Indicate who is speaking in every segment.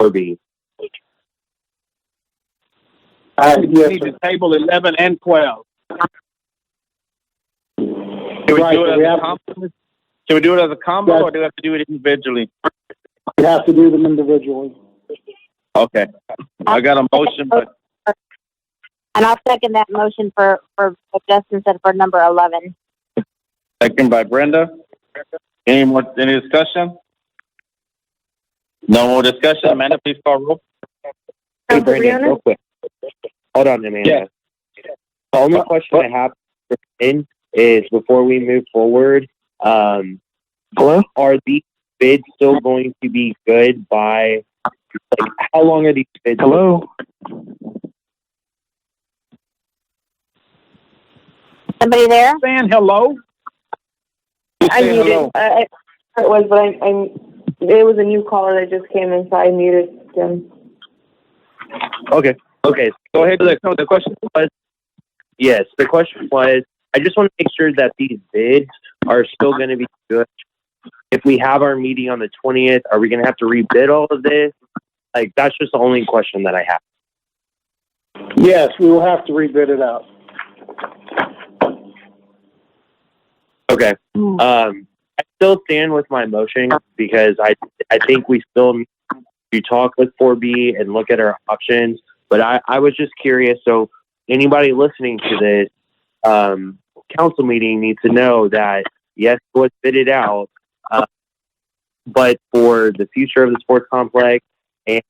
Speaker 1: Kirby.
Speaker 2: Uh, We need to table eleven and twelve.
Speaker 3: Can we
Speaker 2: Right,
Speaker 3: do
Speaker 2: so
Speaker 3: it as
Speaker 2: we
Speaker 3: a
Speaker 2: have-
Speaker 3: combo? Can we do it as a combo
Speaker 2: Yes.
Speaker 3: or do we have to do it individually?
Speaker 2: We have to do them individually.
Speaker 3: Okay. I got a motion, but
Speaker 4: And I'll second that motion for, for what Justin said for number 11.
Speaker 3: second by Brenda. Any more, any discussion? No more discussion. Amanda, please call roll.
Speaker 1: Hey,
Speaker 5: Council
Speaker 1: Brandon,
Speaker 5: Briones?
Speaker 1: real quick. Hold on, Amanda.
Speaker 3: Yeah.
Speaker 1: The only question I have for Lynn is before we move forward, um, are these bids still going to be good by, like, how long are these bids?
Speaker 6: Hello?
Speaker 4: Somebody there?
Speaker 2: Saying hello?
Speaker 5: I muted. I, I, it was, but I, I, it was a new caller that just came in, so I muted him.
Speaker 1: Okay, okay,
Speaker 3: Go ahead. Look, no, the question
Speaker 1: Yes, the question was, I just want to make sure that these bids are still going to be good. If we have our meeting on the twentieth, are we going to have to rebid all of this? Like, that's just the only question that I have.
Speaker 2: Yes, we will have to rebid it out.
Speaker 1: Okay. Um, I still stand with my motion because I I think we still need to talk with 4B and look at our options. But I, I was just curious. So anybody listening to this um, council meeting needs to know that yes, it was fitted out, uh, but for the future of the sports complex and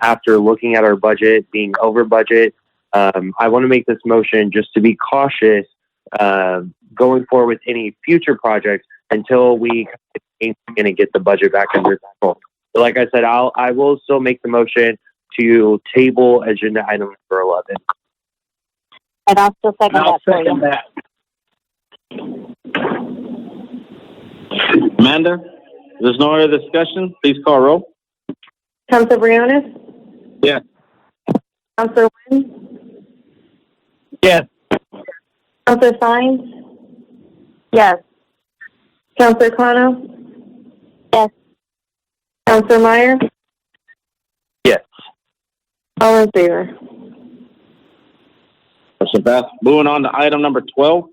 Speaker 1: after looking at our budget being over budget, um, I want to make this motion just to be cautious. Um, going forward with any future projects until we ain't going to get the budget back under control. But like I said, I'll I will still make the motion to table agenda item number eleven.
Speaker 4: And I'll still second
Speaker 2: I'll
Speaker 4: that for you.
Speaker 2: second that.
Speaker 3: Amanda, there's no other discussion. Please call roll.
Speaker 5: Council Briones?
Speaker 3: Yes.
Speaker 5: Council Wynn?
Speaker 3: Yes.
Speaker 5: Council Fines?
Speaker 4: Yes.
Speaker 5: Council Kano?
Speaker 4: Yes.
Speaker 5: Council Meyer?
Speaker 1: Yes.
Speaker 5: All in favor?
Speaker 3: Motion passed. Moving on to item number twelve,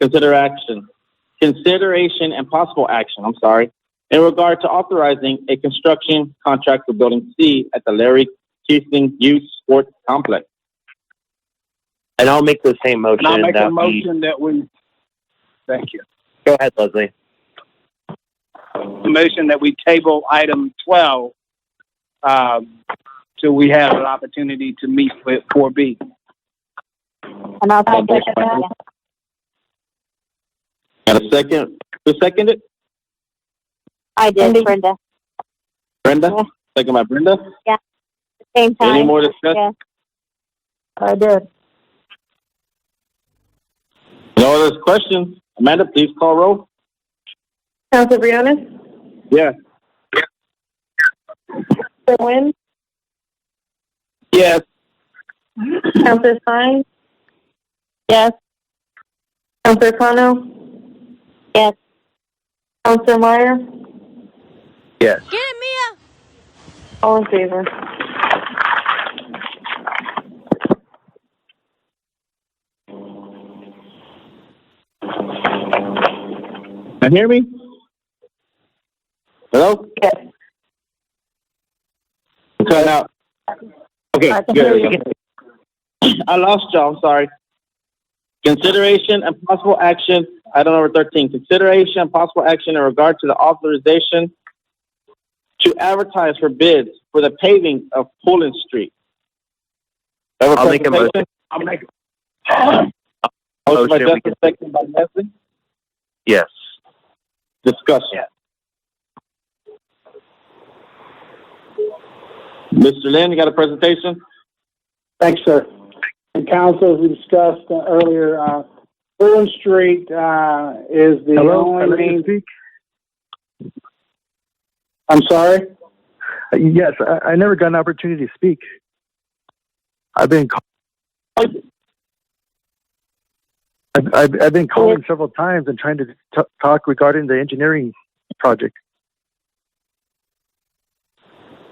Speaker 3: consider action. Consideration and possible action, I'm sorry, in regard to authorizing a construction contract for building C at the Larry Keating Youth Sports Complex.
Speaker 1: And I'll make the same motion.
Speaker 2: And I'll make a
Speaker 1: that uh, we-
Speaker 2: motion that we, thank you.
Speaker 1: Go ahead, Leslie.
Speaker 2: A motion that we table item twelve, um, till we have an opportunity to meet with four B.
Speaker 4: And I'll
Speaker 3: I'll
Speaker 4: second
Speaker 3: second
Speaker 4: that.
Speaker 3: Got a second? Who seconded?
Speaker 4: I did, Brenda.
Speaker 3: Brenda? Second by Brenda?
Speaker 4: Same time.
Speaker 3: Any more discussion?
Speaker 4: Yes. I did.
Speaker 3: No other questions? Amanda, please call roll.
Speaker 5: Council Briones?
Speaker 3: Yes.
Speaker 5: Council Wynn?
Speaker 3: Yes.
Speaker 5: Council Fines?
Speaker 4: Yes.
Speaker 5: Council Kano?
Speaker 4: Yes.
Speaker 5: Council Meyer?
Speaker 7: Get it, Mia!
Speaker 5: All in favor?
Speaker 3: Can you hear me? Hello?
Speaker 5: Yes.
Speaker 3: Cut out. Okay,
Speaker 4: I can hear
Speaker 3: good. I lost y'all, I'm sorry. Consideration and possible action, item number thirteen, consideration and possible action in regard to the authorization to advertise for bids for the paving of Pullen Street.
Speaker 1: I'll make a motion.
Speaker 3: Presentation.
Speaker 2: I'll make,
Speaker 3: Motion by
Speaker 1: Motion, we
Speaker 3: Justin, second by Leslie.
Speaker 1: Yes.
Speaker 3: Discussion. Mr. Lynn, you got a presentation?
Speaker 2: Thanks, sir. And council, as we discussed uh, earlier, uh, Fulton Street, uh, is the
Speaker 6: Hello?
Speaker 2: only
Speaker 6: I'd like to
Speaker 2: main,
Speaker 6: speak.
Speaker 2: I'm sorry?
Speaker 6: Uh, Yes, I, I never got an opportunity to speak. I've been call- I've, I've, I've been calling several times and trying to t- talk regarding the engineering project.